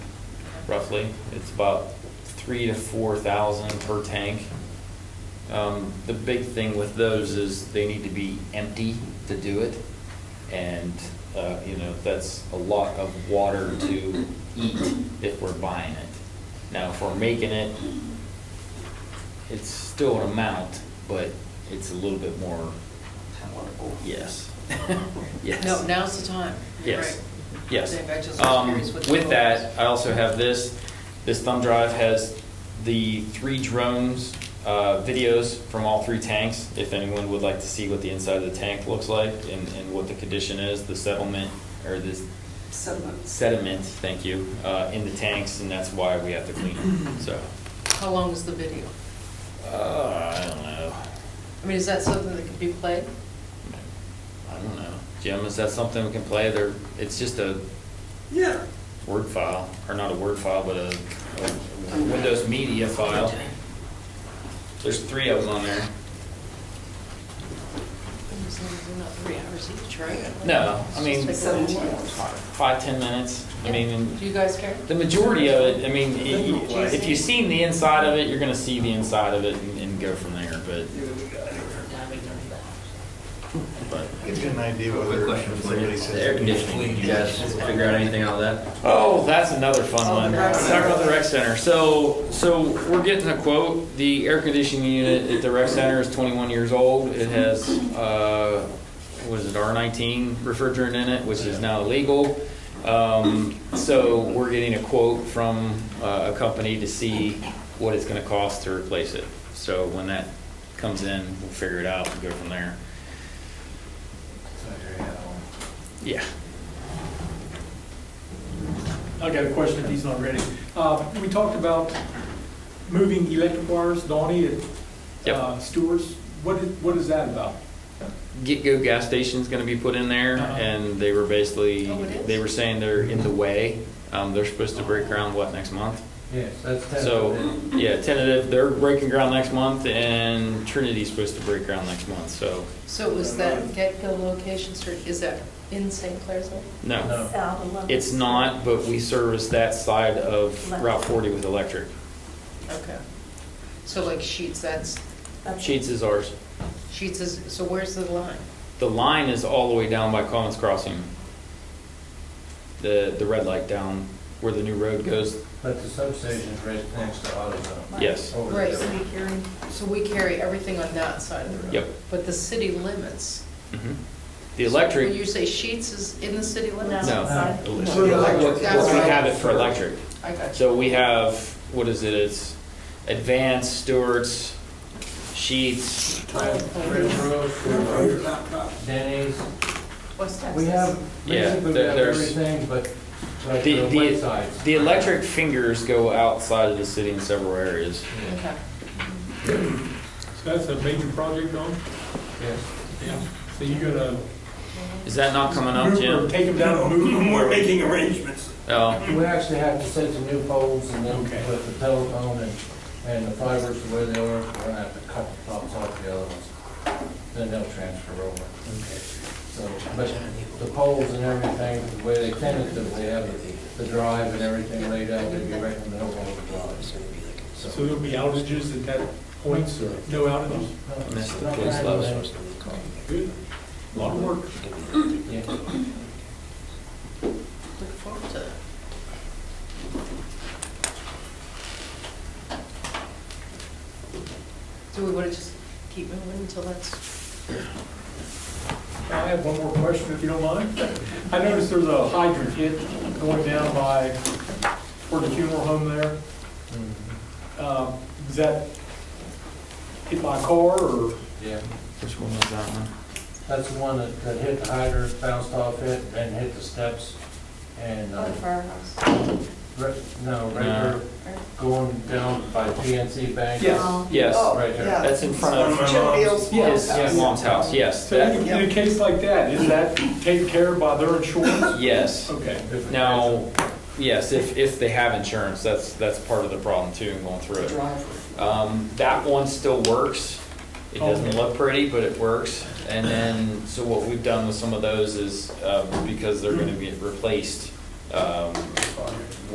roughly. It's about three to four thousand per tank. Um, the big thing with those is they need to be empty to do it. And, uh, you know, that's a lot of water to eat if we're buying it. Now, if we're making it, it's still an amount, but it's a little bit more, yes. Yes. No, now's the time. You're Yes, right. yes. Getting back to the Um, experience with the With that, phones. I also have this. This thumb drive has the three drones, uh, videos from all three tanks. If anyone would like to see what the inside of the tank looks like and, and what the condition is, the settlement, or this sediment, thank you, uh, in the tanks, and that's why we have to clean them, so. How long is the video? Uh, I don't know. I mean, is that something that could be played? I don't know. Jim, is that something we can play? There, it's just a Yeah. Word file, or not a Word file, but a, a Windows Media file. There's three of them on there. As long as they're not three hours each, right? No, I mean, Just like Seventeen that. hours. five, ten minutes. I mean, Do and you guys care? the majority of it, I mean, i- if you've seen the inside of it, you're gonna see the inside of it and, and go from there, but, but. Gives you an idea Quick whether question for you. somebody says. The air conditioning, you guys figure out anything out of that? Oh, that's another fun Oh, one. the rec Talk center. about the rec center. So, so we're getting a quote. The air conditioning unit at the rec center is 21 years old. It has, uh, was it R19 refrigerant in it, which is now illegal. Um, so we're getting a quote from uh, a company to see what it's going to cost to replace it. So when that comes in, we'll figure it out and go from there. Yeah. I got a question, if he's not ready. Uh, We talked about moving electric wires, Donnie, at Yep. uh, Stewart's. What is, what is that about? get-go gas station's going to be put in there, Uh-huh. and they were basically, Oh, it is? they were saying they're in the way. Um, they're supposed to break ground, what, next month? Yes, that's So, yeah, tentative, they're breaking ground next month, and Trinity's supposed to break ground next month, so, So was that get-go location search, is that in St. Clair's? Lake? no. No. It's not, but we service that side of Route 40 with electric. Okay. So like Sheets, that's, Sheets is ours. Sheets is, so where's the line? The line is all the way down by Collins Crossing. The, the red light down where the new road goes. But the substation is right next to AutoZone. Yes. Over Right. there. City hearing. So we carry everything on that side of the road? Yep. But the city limits? Mhm. The So electric When you say Sheets is in the city limits? No. outside. We No. we That's right. have it for electric. I got you. So we have, what is it, it's Advanced, Stewart's, Sheets, Red Roof, Denny's. West Texas. We have, Yeah, basically we there- have there's- everything but like The- the the- wet sides. the electric fingers go outside of the city in several areas. Okay. So that's a major project, Don? Yes. Yeah. So you're gonna Is that not coming up, move or Jim? take them down and move them? We're making arrangements. Oh, We actually have to set the new poles and then Okay. put the telephone and, and the fibers the way they are, we're gonna have to cut the tops off the other ones. Then they'll transfer over. So, but the poles and everything, the way they tentatively have the, the drive and everything laid out, they'd be right in the middle of the drive. So there'll be outages at that point, sir? No outages? uh, Missed the police love. Good. A Lot of work. Yeah. Look forward to that. Do we want to just keep moving until that's, I have one more question, if you don't mind. I noticed there's a hydrant hit going down by, where the funeral home there. Um, Is that hit by a car, or? Yeah, Which one was that one? that's the one that, that hit the hydrant, bounced off it, and hit the steps, and, Oh, uh, the firehouse. Right, no, right No. there, going down by PNC Bank. Yes. Oh. Yes, Oh, Right there. yeah. that's in front of It's one of my mom's. his Yes. mom's house, yes. So that- in a- in a case like that, is that taken care of by their insurance? Yes. Okay. If it- Now, yes, if, if they have insurance, that's, that's part of the problem too, and going through it. Um, that one still works. It doesn't Okay. look pretty, but it works. And then, so what we've done with some of those is, um, because they're gonna get replaced, um,